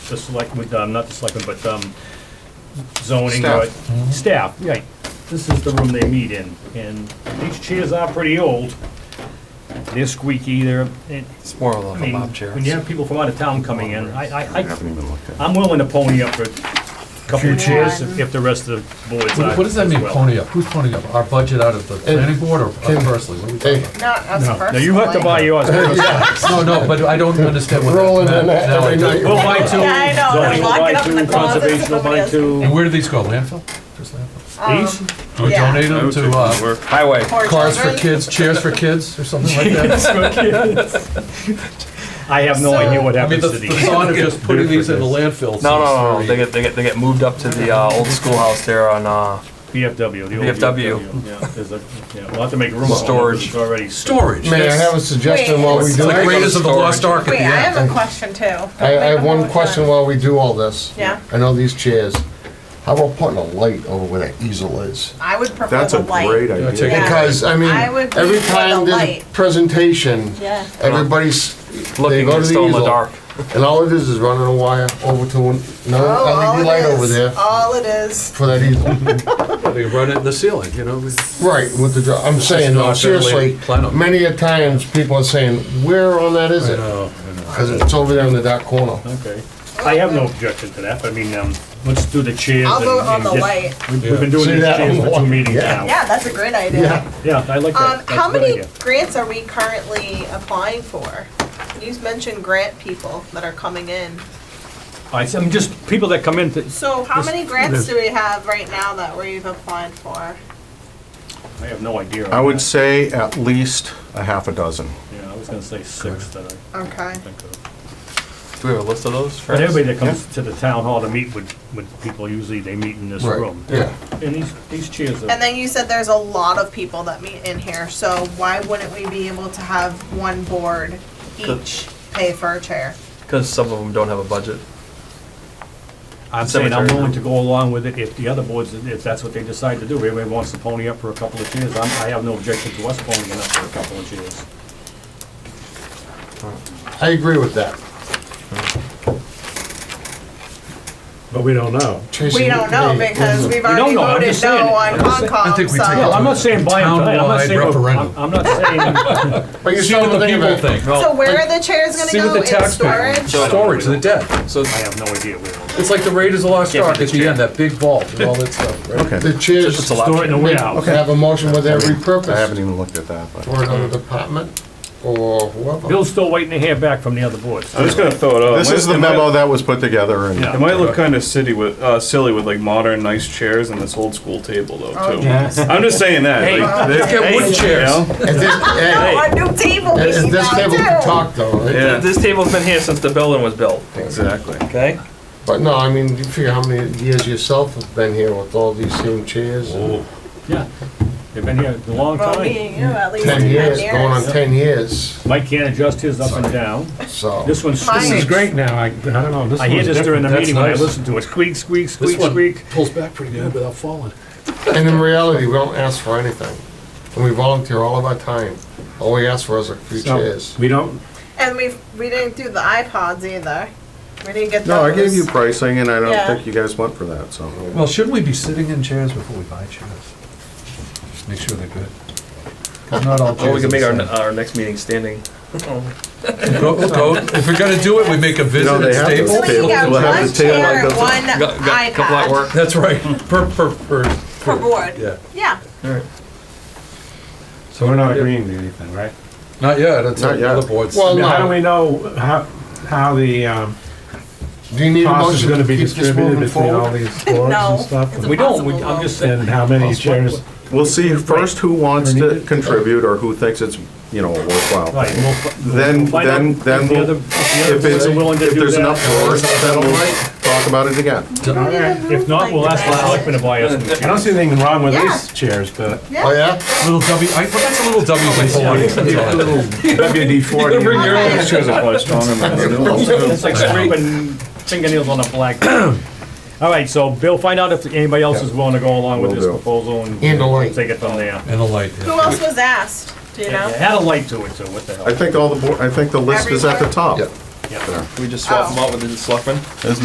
the select, with, um, not the selectmen, but, um, zoning, or Staff. Mm-hmm. staff, right. This is the room they meet in, and these chairs are pretty old. They're squeaky, they're, and, It's more I of a mean, mob chair. when you have people from out of town coming in, I, I, I I, haven't even looked at it. I'm willing to pony up for a couple Few of chairs if chairs. if the rest of the board's. What what does that as mean, well. pony up? Who's ponying up? Our budget out of the planning board or us Tim. personally? What are we talking Hey, about? Not us No, personally. no, you have to buy yours first. No, no, but I don't understand what rolling that in meant. Now I every do. night. We'll buy two. Yeah, I know, zoning they're will locking buy up in two, the closet so Conservation will somebody buy else- two. And where do these go, landfill? Just landfill? These? Do we Yeah. donate them to, uh, Highway. Poor cars for children. kids, chairs for kids, or something like that? I have no So- idea what I mean, happens the to the these. thought of just putting these in the landfill seems No, no, no, no, very- they get, they get, they get moved up to the, uh, old schoolhouse there on, uh, VFW, the old VFW. VFW, Yeah, there's a, yeah, we'll have to make room. for it, 'cause Storage. It's already. Storage. May I that's- have a suggestion while we Wait. The do? Sorry. it? greatest of the lost ark at Wait, the I end. have a question too. I, I have one question while we do all this. Yeah. I know these chairs. How about putting a light over where that easel is? I would prefer That's the a light. great idea. take Yeah. Because, I mean, I would every prefer time the there's a light. presentation, Yeah. everybody's, they looking, go to it's the still in the easel. dark. And all it is is running a wire over to an- another Oh, all LED it light is, over there All it is. for that easel. They run it in the ceiling, you know? Right, with the, dr- I'm saying, not no, that seriously, late plenum. many a times people are saying, where on that is I it? know, I know. Because it's over there in the dark corner. Okay. I have no objection to that, but I mean, um, let's do the chairs. I'll and- vote on and the get- light. We've Yeah. we've been doing See these that? chairs for two meetings Yeah. now. Yeah, that's a great idea. Yeah. Yeah, I like Um, that. That's how a good many idea. grants are we currently applying for? You mentioned grant people that are coming in. I, am just, people that come in, to- So how This- many grants do we have right now that we've applied for? I have no idea. on I would that. say at least a half a dozen. Yeah, I was gonna say six that I Okay. think of. Do we have a list of those? But Fred? everybody that comes to the town hall to meet with, with people, usually they meet in this Right, room. yeah. And these, these chairs And are, then you said there's a lot of people that meet in here, so why wouldn't we be able to have one board each pay for a chair? Cause some of them don't have a budget. I'm saying I'm cemetery. willing to go along with it if the other boards, if that's what they decide to do. Everybody wants to pony up for a couple of chairs. I'm, I have no objection to us ponying up for a couple of chairs. I agree with that. But we don't know. Tracy, We don't know hey, because we've don't already know, I'm voted just saying. no on I'm just saying- I Concom, think we take it I'm so. to- not saying buy them tonight. I'm not Townwide saying, referendum. I'm I'm not saying, But you're See what still the thinking people about it. think. So where are the chairs See gonna what go? the In taxpayer. storage? Storage, the debt. So I have no idea where. it'll go. It's like the Raiders of the Lost Can't be Ark at the destroyed. end, that big vault and all that stuff, right? Okay, The chairs it's a lot. Store it in a warehouse. have a motion with every I haven't purpose even looked at that, but. for another department or whoever. Bill's still waiting to hear back from the other boards. I'm just gonna throw it out. This It might- is the it might- memo that was put together and. Yeah. It might look kind of silly with uh, silly with like modern nice chairs and this old school table though too. I'm just saying that. Hey, like, Let's get wooden you chairs. know? At this, Oh, a hey, new table we at need this now, table too. to talk though, right? Yeah. This table's been here since the building was built, Exactly. okay? But no, I mean, you figure how many years yourself have been here with all these same chairs? and- Yeah, they've been here a long Well, time. me and you, at least Ten years, going on years. ten years, Mike can't adjust his up and down. so. This one's. Mine This is great now, I, I don't know, this I hear one's this during the different. meeting when I That's nice. listen to it. Squeak, squeak, This squeak, one squeak. pulls back pretty good without falling. And in reality, we don't ask for anything. And we volunteer all of our time. All we ask for is a few So, chairs. We don't, And we, we didn't do the iPods either. We didn't get those. No, I gave you pricing and I Yeah. don't think you guys went for that, so. Well, shouldn't we be sitting in chairs before we buy chairs? Just make sure they're good. 'Cause not all Or Oh, we chairs are can make our, the our next meeting standing. same. Go- go- If we're gonna do it, we make a know, visit they at have those So Staples. tables. you got We'll have one the table chair like and those. one Got, got, couple at iPad work. That's right, per, per, per. per board. Yeah, Yeah. so we're not agreeing to anything, right? not yet, it's Not yet. other boards. Well, How do no. we know how, how the, um, Do you need a cost is motion gonna to be keep this distributed moving between all forward? these boards No, and stuff? We don't, we- I'm just saying, And how many chairs? We'll see first who wants to contribute or who thinks it's, you know, worthwhile. right, we'll fi- we'll Then, find out then, if then, the other- we'll- If if the it's, others are willing to if do there's enough that. for us, then we'll talk about it again. If not, we'll ask the selectmen to buy us new I don't chairs. see anything wrong with Yeah. these chairs, but. Yeah. Oh, yeah? Little W, I, but that's a little W's I pull on it. WD forty. Bring your own. These chairs are probably stronger than those. It's like scraping fingernails on a blackboard. All right, so Bill, find out if anybody else is willing to go along with Will this do. proposal And and the light. take it from there. And a light, yeah. Who else was asked? Do you It know? had a light to it, so what the hell? I think all the, board- I think the list is at the top. Yeah. Yeah. We just swap them out with the selectmen.